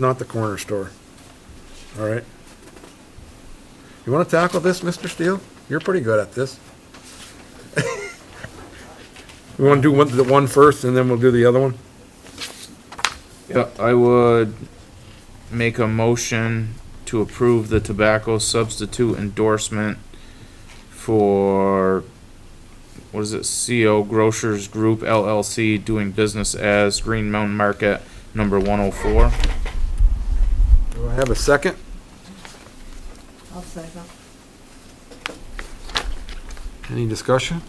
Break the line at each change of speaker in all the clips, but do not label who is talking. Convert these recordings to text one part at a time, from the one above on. not the corner store. All right? You want to tackle this, Mr. Steele? You're pretty good at this. We want to do one, the one first, and then we'll do the other one?
Yeah, I would make a motion to approve the tobacco substitute endorsement for, what is it, CO Grocers Group LLC doing business as Green Mountain Market number one oh four.
Do I have a second?
I'll second.
Any discussion?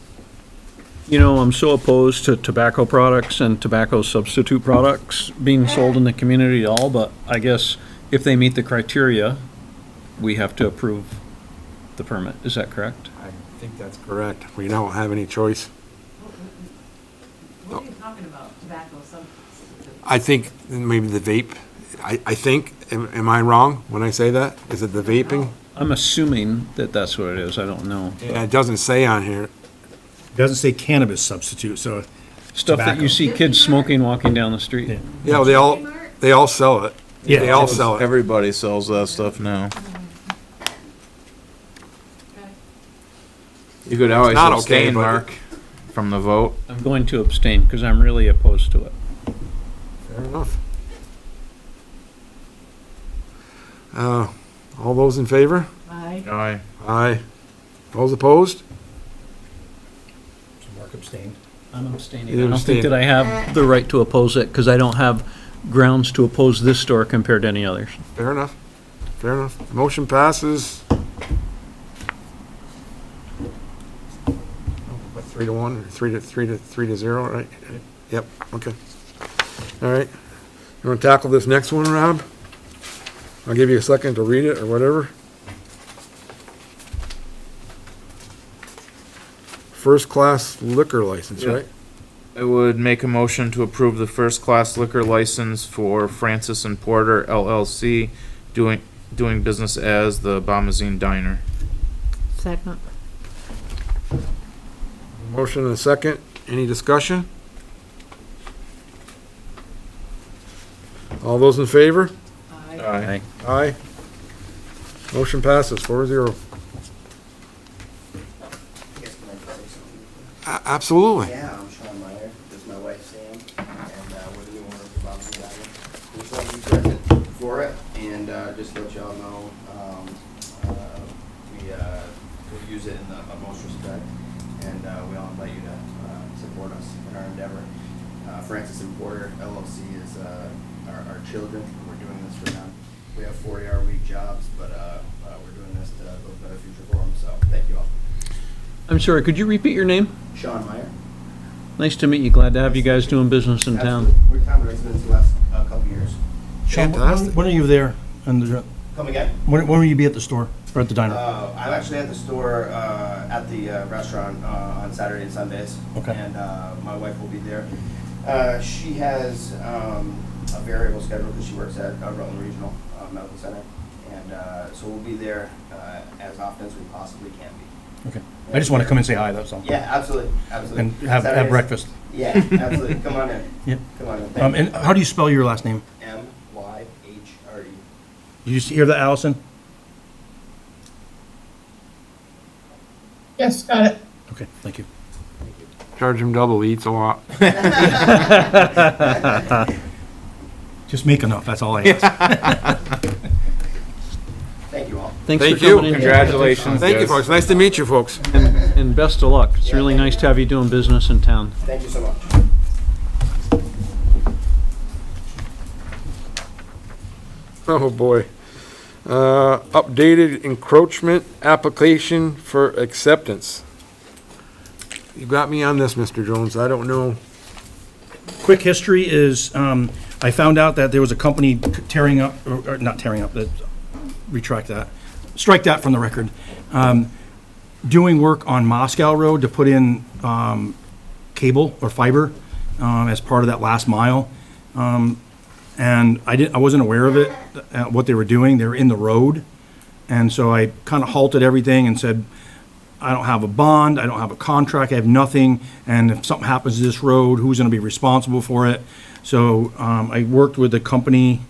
You know, I'm so opposed to tobacco products and tobacco substitute products being sold in the community at all, but I guess if they meet the criteria, we have to approve the permit. Is that correct?
I think that's correct. We don't have any choice.
What are you talking about, tobacco substitute?
I think maybe the vape, I, I think, am am I wrong when I say that? Is it the vaping?
I'm assuming that that's what it is. I don't know.
Yeah, It doesn't say on here.
Doesn't say cannabis substitute, so
Stuff that
Tobacco.
you see kids smoking walking down the street.
Yeah.
Yeah, they all, they all sell it.
Yeah.
They all sell it.
Everybody sells that stuff now. You could always
not okay,
abstain,
but-
Mark, from the vote.
I'm going to abstain because I'm really opposed to it.
Fair enough. Uh, all those in favor?
Aye.
Aye.
Aye. Those opposed?
Mark abstained.
I'm abstaining.
You
I don't
abstain.
think that I have the right to oppose it because I don't have grounds to oppose this store compared to any others.
Fair enough. Fair enough. Motion passes. What, Three to one, or three to, three to, three to zero, right? Yep, okay. All right. You want to tackle this next one, Rob? I'll give you a second to read it or whatever. First-class liquor license,
Yeah.
right?
I would make a motion to approve the first-class liquor license for Francis and Porter LLC, doing, doing business as the Bombazine Diner.
Second.
Motion and a second. Any discussion? All those in favor?
Aye.
Aye.
Aye. Motion passes four zero. Absolutely.
Yeah, I'm Sean Meyer, this is my wife Sam, and uh, we're the new owner of Bob's Diner. We just want to be present for it, and uh, just to let y'all know, um, uh, we, uh, we use it in the utmost respect, and uh, we all invite you to uh, support us in our endeavor. Uh, Francis and Porter LLC is uh, our our children, and we're doing this for them. We have 40-hour-week jobs, but uh, uh, we're doing this to build a better future for them, so thank you all.
I'm sorry, could you repeat your name?
Sean Meyer.
Nice to meet you. Glad to have you guys doing business in town.
Absolutely. We've found residents the last uh, couple years.
Sean,
Fantastic.
when- when are you there? And the-
Come again?
when, when will you be at the store or at the diner?
Uh, I'm actually at the store uh, at the uh, restaurant uh, on Saturday and Sundays.
Okay.
And uh, my wife will be there. Uh, she has um, a variable schedule because she works at uh, Rutland Regional uh, Medical Center, and uh, so we'll be there uh, as often as we possibly can be.
Okay. I just want to come and say hi, that's all.
Yeah, absolutely, absolutely.
And have, have
Saturdays-
breakfast.
Yeah, absolutely. Come on in.
Yep.
Come on in. Thank
Um, and how do you spell your last name?
M Y H R E.
You just hear that, Allison?
Yes, got it.
Okay, thank you.
Charge him double, he eats a lot.
Just make enough, that's all I ask.
Thank you all.
Thanks for
Thank you.
coming in.
Congratulations,
Thank you,
guys.
folks. Nice to meet you, folks.
And best of luck. It's really nice to have you doing business in town.
Thank you so much.
Oh, boy. Uh, updated encroachment application for acceptance. You got me on this, Mr. Jones. I don't know.
Quick history is, um, I found out that there was a company tearing up, or, or not tearing up, that, retract that, strike that from the record. Um, doing work on Moscow Road to put in, um, cable or fiber, um, as part of that last mile. Um, and I didn't, I wasn't aware of it, uh, what they were doing. They were in the road. And so I kind of halted everything and said, I don't have a bond, I don't have a contract, I have nothing, and if something happens to this road, who's gonna be responsible for it? So, um, I worked with the company,